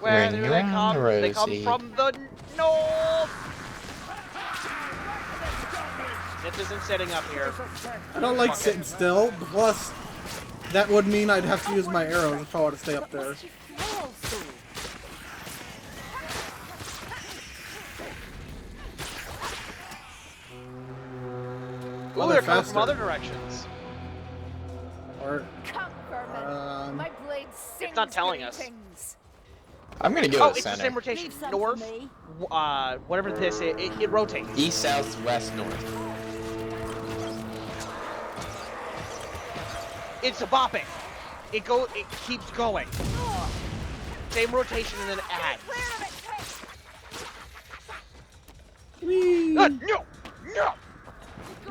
Where Ring do they around come? the They come rosy. from the north. It isn't setting up here. I don't like Fuck it. sitting still. Plus, that would mean I'd have to use my arrows if I want to stay up there. Ooh, Well, they're they're coming from faster. other directions. Or Come, vermin. um, My blade sings not telling us. greetings. I'm gonna go Oh, to it's the center. same rotation. Leave some for North, me. w- uh, whatever this is, it, it rotates. East, south, west, north. It's a bopping. It go. It keeps going. Same rotation and then add. whee! Uh, no, no,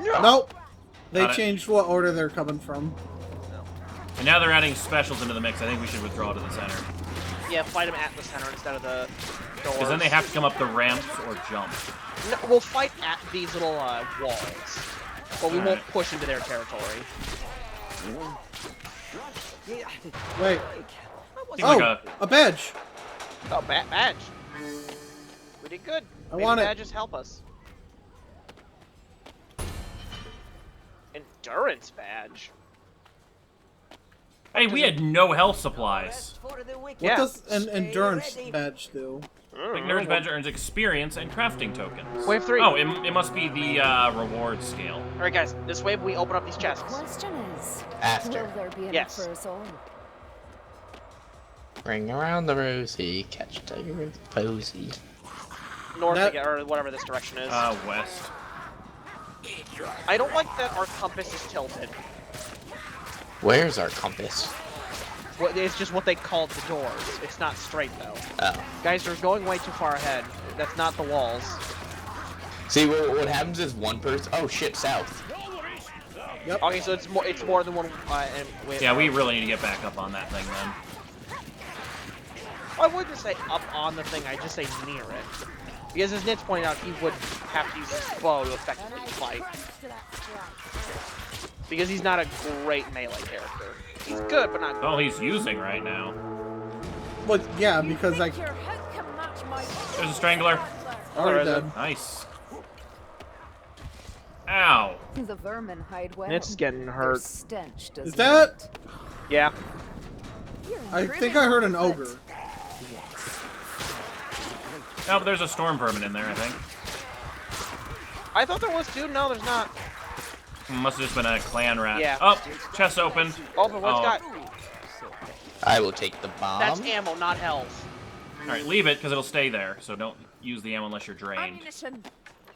no. nope. They Got it. changed what order they're coming from. And now they're adding specials into the mix. I think we should withdraw to the center. Yeah, fight them at the center instead of the doors. Because then they have to come up the ramps or jump. No, we'll fight at these little uh, walls, but we won't Alright. push into their territory. Yeah. Wait. Seems Oh, like a... a- badge. Oh, bad badge. We did good. I Maybe want it. badges help us. Endurance badge. Hey, we had no health supplies. What Yeah. does an Stay endurance ready. badge do? Ignorance Badge earns experience and crafting tokens. Wave three. Oh, it, it must be the uh, reward scale. All right, guys. This wave we open up these chests. Question is, After. will there be an Yes. reversal? Ring around the rosy, catch a tiger with a posy. North That- again, or whatever this direction is. Uh, west. I don't like that our compass is tilted. Where's our compass? What- It's just what they called the doors. It's not straight though. Oh. Guys, they're going way too far ahead. That's not the walls. See, what, what happens is one person. Oh shit, south. Okay, so it's more. It's more than one. Uh, and wait, Yeah, we really need to get back up on that thing then. I wouldn't say up on the thing. I just say near it. Because as Nitz pointed out, he would have to use his bow to And effectively I fight. crunch to that strike. Because he's not a great melee character. He's good, but not. That's all Oh, he's using right now. Well, yeah, because I Think your head can match my There's a strangler. already There is did. Nice. Ow. Oh, The vermin hide well. Nitz getting Their hurt. stench does Is that? Yeah. I think I heard an ogre. No, but there's a storm vermin in there, I think. I thought there was two. No, there's not. Must have just been a clan rat. Yeah. Oh, chest open. Open. What's Oh. got? I will take the bomb. That's ammo, not health. All right, leave it because it'll stay there. So don't use the ammo unless you're drained. Ammunition.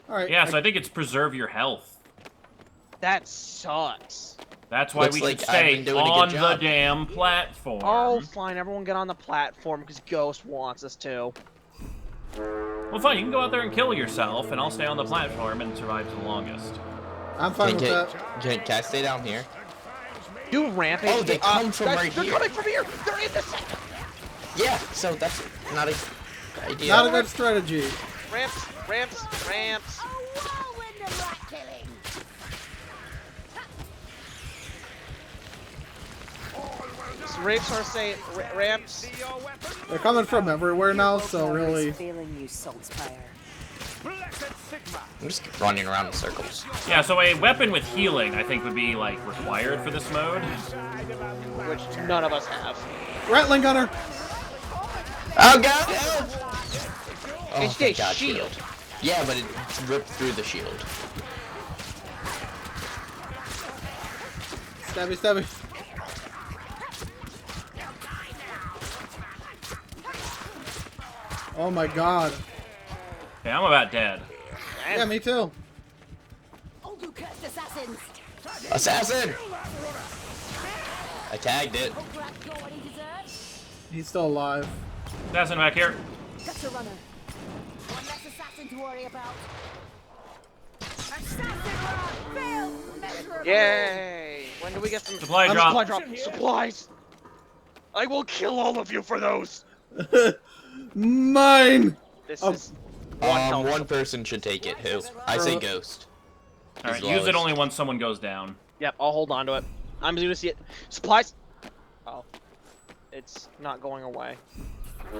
All right. Yeah, so I think it's preserve your health. That sucks. That's why Looks we like should I've stay been doing a good on the job. damn platform. Oh, fine. Everyone get on the platform because Ghost wants us to. Well, fine. You can go out there and kill yourself, and I'll stay on the platform and survive to the longest. I'm fine Can, with can, that. can, can I stay down here? Do rampage. Oh, they Uh, come from guys, right they're here. coming from here. They're in the second. Yeah. So that's not a idea. Not a good strategy. Ramps, ramps, ramps. A whirlwind of rat killing. So Ramps are say ra- ramps. They're coming from everywhere now, so really. Feeling you, Saltspire. I'm just running around in circles. Yeah. So a weapon with healing, I think, would be like required for this mode. which none of us have. Rattling gunner. Oh god! Help! Oh, It's thank the God, shield. Yeah, but it ripped through the shield. Stabby, stabby. Oh my god. Okay, I'm about dead. Yeah, me too. All you cursed assassins. Assassin! I tagged it. Hope rat got what he deserves. He's still alive. Assassin back here. Gutter runner. One less assassin to worry about. Assassin run. Failed miserably. Yay! When do we get some Supply I'm drop. Supply drop. Supplies. I will kill all of you for those. Mine! This Oh. is one Um, health. one person should take it. Who? I say ghost. All right, He's use lowest. it only when someone goes down. Yep, I'll hold on to it. I'm gonna see it. Supplies. Oh, it's not going away.